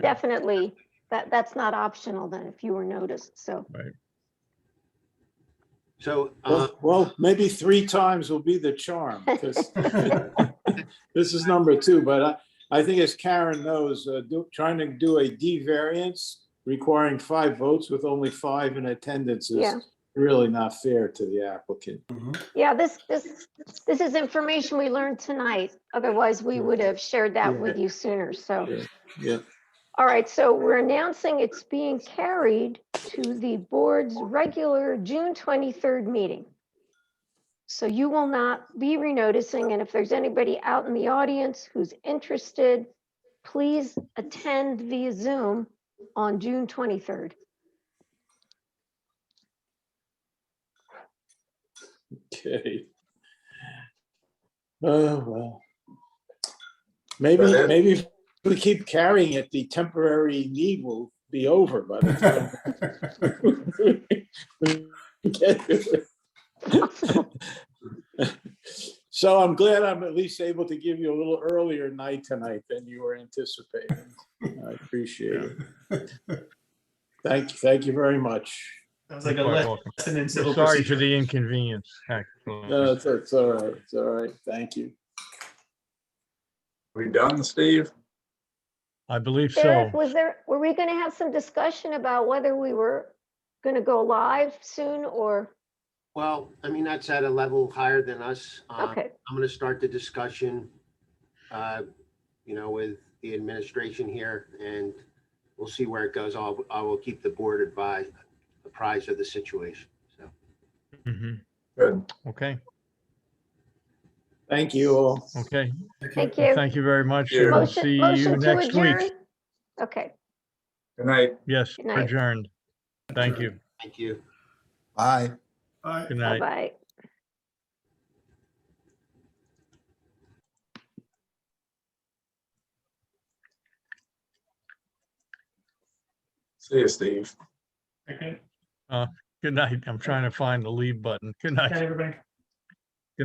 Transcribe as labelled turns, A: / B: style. A: definitely, that, that's not optional then if you were noticed, so.
B: So, uh,
C: Well, well, maybe three times will be the charm, because this is number two, but I, I think as Karen knows, uh, do- trying to do a D variance requiring five votes with only five in attendance is
A: Yeah.
C: really not fair to the applicant.
A: Yeah, this, this, this is information we learned tonight. Otherwise, we would have shared that with you sooner, so.
C: Yeah,
A: All right, so we're announcing it's being carried to the board's regular June 23rd meeting. So you will not be renoticing, and if there's anybody out in the audience who's interested, please attend via Zoom on June 23rd.
C: okay. Oh, well. Maybe,
D: That it?
C: maybe if we keep carrying it, the temporary need will be over by the time So I'm glad I'm at least able to give you a little earlier night tonight than you were anticipating. I appreciate it. Thank, thank you very much.
E: That was like a
F: You're quite
E: lesson
F: welcome.
E: in
F: We're
E: civil
F: Sorry for
E: procedure.
F: the inconvenience, actually.
C: No, it's, it's all right, it's all right, thank you.
D: We done, Steve?
F: I believe so.
A: Derek, was there, were we going to have some discussion about whether we were going to go live soon or,
B: well, I mean, that's at a level higher than us. Uh,
A: okay,
B: I'm going to start the discussion, uh, you know, with the administration here and we'll see where it goes. I'll, I will keep the board advised, apprised of the situation. So,
F: Mhm.
D: Good.
F: Okay,
C: Thank you all.
F: okay.
A: thank
F: Well,
A: you.
F: Thank you very much.
D: Thank you.
F: We'll
A: Motion,
F: see you
A: motion to
F: next
A: adjourn?
F: week.
A: Okay.
D: Good night.
F: Yes,
A: Good night.
F: adjourned. Thank you.
B: thank you.
G: Bye.
E: All right.
F: Good night.
A: Bye-bye.
D: See you, Steve.
E: Okay.
F: Good night. I'm trying to find the leave button. Good night.
E: Okay, everybody.